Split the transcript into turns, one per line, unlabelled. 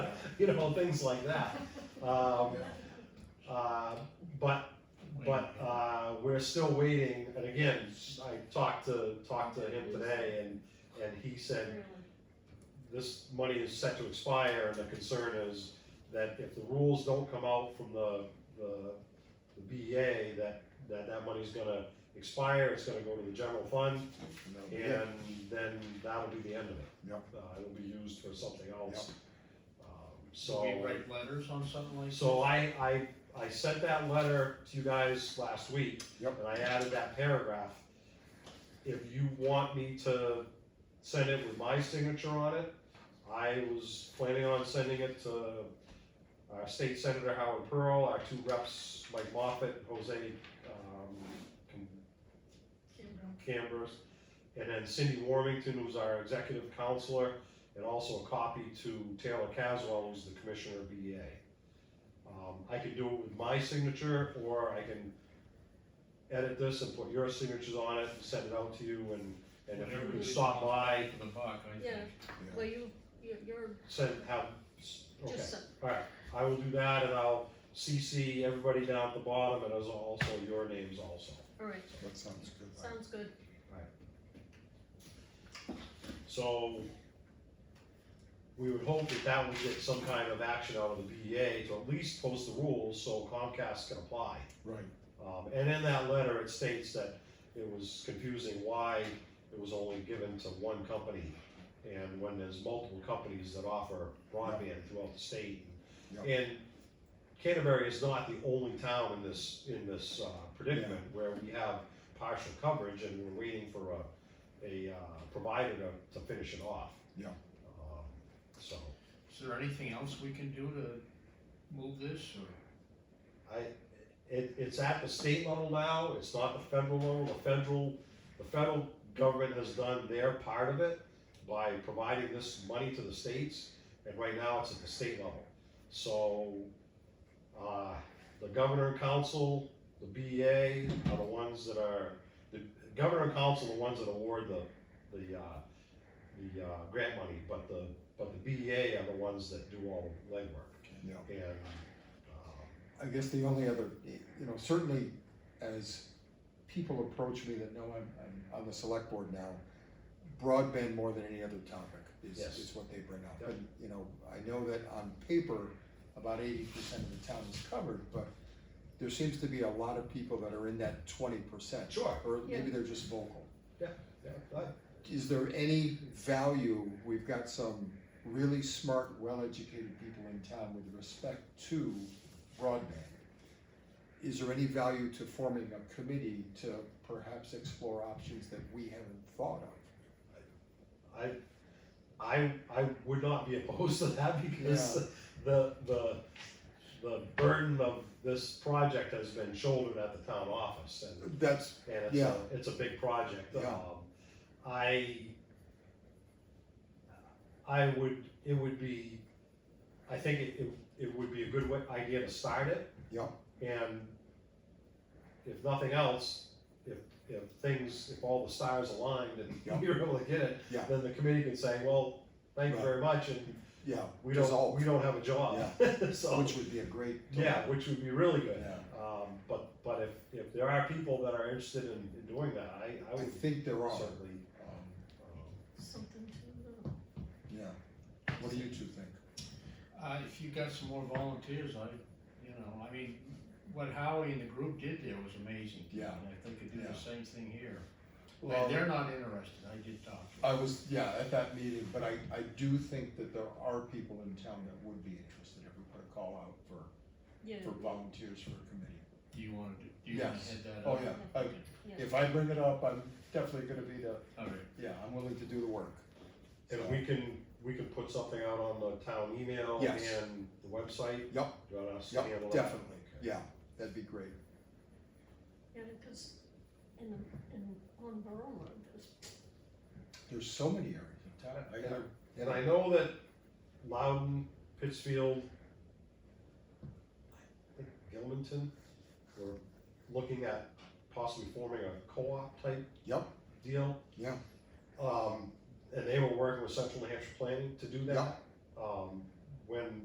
you know, things like that. Um, uh, but, but, uh, we're still waiting, and again, I talked to, talked to him today, and, and he said, this money is set to expire, and the concern is that if the rules don't come out from the, the, the BEA, that, that that money's gonna expire, it's gonna go to the general fund, and then that'll be the end of it.
Yep.
Uh, it'll be used for something else. Um,
So
So.
we write letters on something like?
So I, I, I sent that letter to you guys last week.
Yep.
And I added that paragraph. If you want me to send it with my signature on it, I was planning on sending it to our state senator Howard Pearl, our two reps, Mike Moffett, Jose, um, Cambers, and then Cindy Warmington, who's our executive counselor, and also a copy to Taylor Caswell, who's the commissioner of BEA. Um, I can do it with my signature, or I can edit this and put your signatures on it and send it out to you, and, and if you
Whatever
can
it is,
stop by,
For the buck, I
Yeah.
think.
Well, you, you're, you're
send, have, okay,
just,
alright, I will do that, and I'll CC everybody down at the bottom, and as also your names also.
all right,
That sounds good.
sounds good.
So we would hope that that would get some kind of action out of the BEA to at least post the rules so Comcast can apply.
Right,
Um, and in that letter, it states that it was confusing why it was only given to one company. And when there's multiple companies that offer broadband throughout the state.
Yeah.
And Canterbury is not the only town in this, in this uh, predicament where we have partial coverage and we're waiting for a, a uh, provider to, to finish it off.
Yeah.
Um, So,
Is there anything else we can do to move this or?
I, it, it's at the state level now, it's not the federal level, the federal, the federal government has done their part of it by providing this money to the states, and right now it's at the state level. So, uh, the governor and council, the BEA are the ones that are, the governor and council are the ones that award the, the, uh, the, uh, grant money, but the, but the BEA are the ones that do all the legwork.
yeah.
And, um,
I guess the only other, you know, certainly as people approach me that know I'm, I'm on the select board now, broadband more than any other topic is,
Yes.
is what they bring up.
Yep.
And, you know, I know that on paper, about eighty percent of the town is covered, but there seems to be a lot of people that are in that twenty percent.
Sure.
Or
Yeah.
maybe they're just vocal.
Yeah, but-
Is there any value, we've got some really smart, well-educated people in town with respect to broadband. Is there any value to forming a committee to perhaps explore options that we haven't thought of?
I, I, I would not be opposed to that because the, the, the burden of this project has been shouldered at the town office and,
That's,
and it's
Yeah.
a, it's a big project.
Yeah.
Um, I, I would, it would be, I think it, it- it would be a good wa- idea to start it.
yeah,
And if nothing else, if, if things, if all the stars aligned
Yeah.
and we were able to get it,
Yeah.
then the committee can say, well, thank you
Right.
very much, and
yeah,
we don't,
Dissolve.
we don't have a job. So,
which would be a great.
yeah, which would be really good.
Yeah.
Um, but, but if, if there are people that are interested in, in doing that, I, I
I
would
think there are,
certainly,
um,
um,
Something to, uh,
yeah. What do you two think?
Uh, if you got some more volunteers, I, you know, I mean, what Howie and the group did there was amazing.
Yeah.
And if they could do
Yeah.
the same thing here.
Well-
And they're not interested, I did talk to
I
them.
was, yeah, at that meeting, but I, I do think that there are people in town that would be interested if we put a call out for,
yeah,
for volunteers for a committee.
Do you wanna, do do you wanna
Yes.
head that
Oh,
up?
yeah, I,
yeah.
if I bring it up, I'm definitely gonna be the,
All right,
yeah, I'm willing to do the work.
And we can, we can put something out on the town email
Yes.
and the website.
Yep.
Do you want us to
Yep,
handle that?
definitely,
Okay.
yeah, that'd be great,
Yeah, because in, the- in, on Borough Road, there's,
there's so many areas in town, I gotta,
And I know that Loudon, Pittsfield, I think Gilmanton, were looking at possibly forming a co-op type
Yep.
deal.
Yeah.
Um, and they were working with Central New Hampshire Planning to do that. Um, when